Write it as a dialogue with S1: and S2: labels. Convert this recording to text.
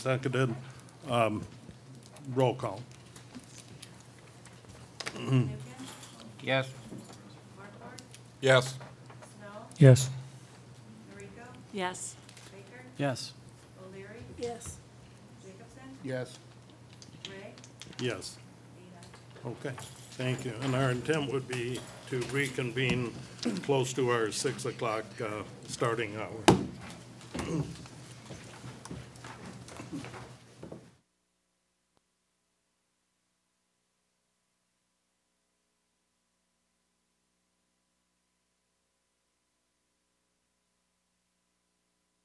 S1: Seconded. Um, Roll call.
S2: Yes.
S3: Yes.
S4: Yes.
S5: Yes.
S2: Yes.
S5: Yes.
S3: Yes.
S1: Yes. Okay, thank you. And our intent would be to reconvene close to our 6 o'clock uh, starting hour.